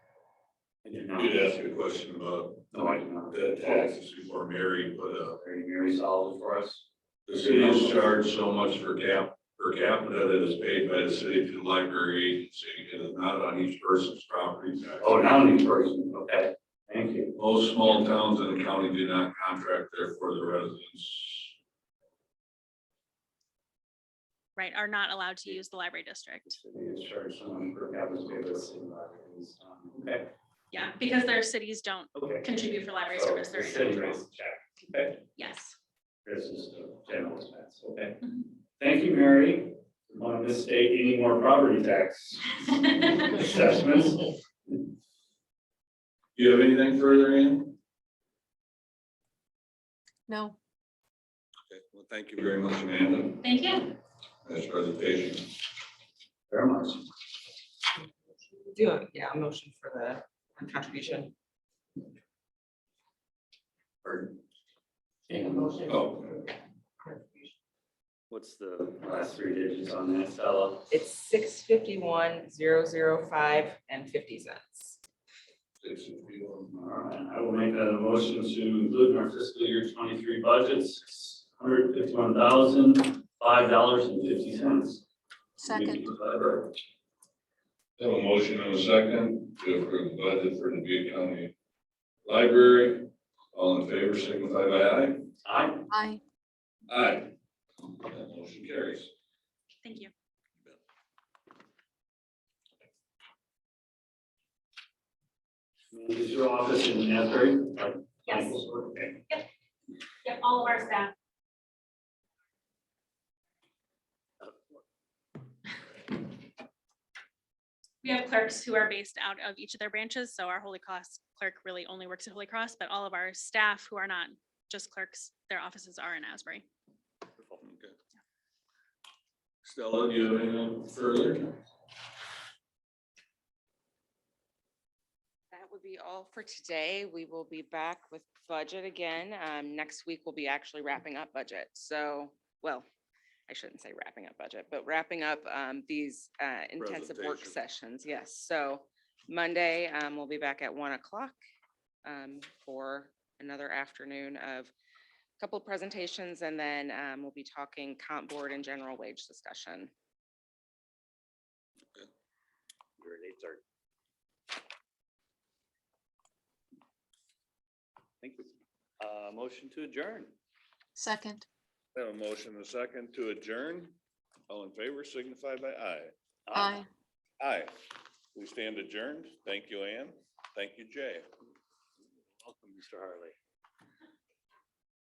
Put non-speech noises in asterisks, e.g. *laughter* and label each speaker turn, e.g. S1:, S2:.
S1: We'd ask you a question about
S2: No, I do not.
S1: the taxes before married, but, uh,
S2: Very, very solid for us.
S1: the city is charged so much for cap, per capita that is paid by the city to the library agency. It is not on each person's property tax.
S2: Oh, now new person, okay, thank you.
S1: Most small towns in the county do not contract, therefore the residents
S3: right, are not allowed to use the library district.
S2: It's charged someone for having to pay us in libraries, um, Okay,
S3: Yeah, Oh, because their cities don't
S2: okay.
S3: contribute for library
S2: So
S3: service.
S2: the
S3: they're
S2: city
S3: individual.
S2: raised the check, okay,
S3: *laughs* Yes.
S2: this is the general expense, okay.
S3: Mhm.
S2: Thank you, Mary. On this state, any more property tax assessments?
S1: Do you have anything further, Ann?
S3: No,
S1: Okay, Well, thank you very much, Amanda,
S3: thank you.
S1: for this presentation.
S2: Very much.
S4: Do, a- yeah, a motion for the contribution.
S1: Pardon?
S2: Okay,
S1: Oh,
S2: What's the last three digits on that, Stella?
S4: It's six fifty-one, zero, zero, five, and fifty cents.
S1: six fifty-one.
S2: All right, I will make that a motion to include in our fiscal year twenty-three budget, six hundred fifty-one thousand, five dollars and fifty cents.
S5: Second,
S1: Have a motion and a second to approve the budget for Dubuque County Library. All in favor, signify by aye.
S2: Aye.
S5: aye.
S1: Aye. That motion carries.
S3: Thank you.
S2: Is your office in Asbury? Like
S3: Yes.
S2: Michael's work? Okay.
S3: Yeah, all of our staff. We have clerks who are based out of each of their branches, so our Holy Cross clerk really only works at Holy Cross, but all of our staff who are not just clerks, their offices are in Asbury.
S1: Okay. Stella, do you have anything further?
S6: That would be all for today. We will be back with budget again. Um, next week we'll be actually wrapping up budget. So, well, I shouldn't say wrapping up budget, but wrapping up, um, these, uh, intensive work
S1: Presentation.
S6: sessions. Yes. So Monday, um, we'll be back at one o'clock, um, for another afternoon of a couple of presentations and then, um, we'll be talking comp board and general wage discussion.
S7: Thank you. Uh, motion to adjourn.
S5: Second,
S1: Have a motion and a second to adjourn. All in favor, signify by aye.
S5: aye.
S1: Aye. We stand adjourned. Thank you, Ann. Thank you, Jay.
S7: Welcome, Mr. Harley.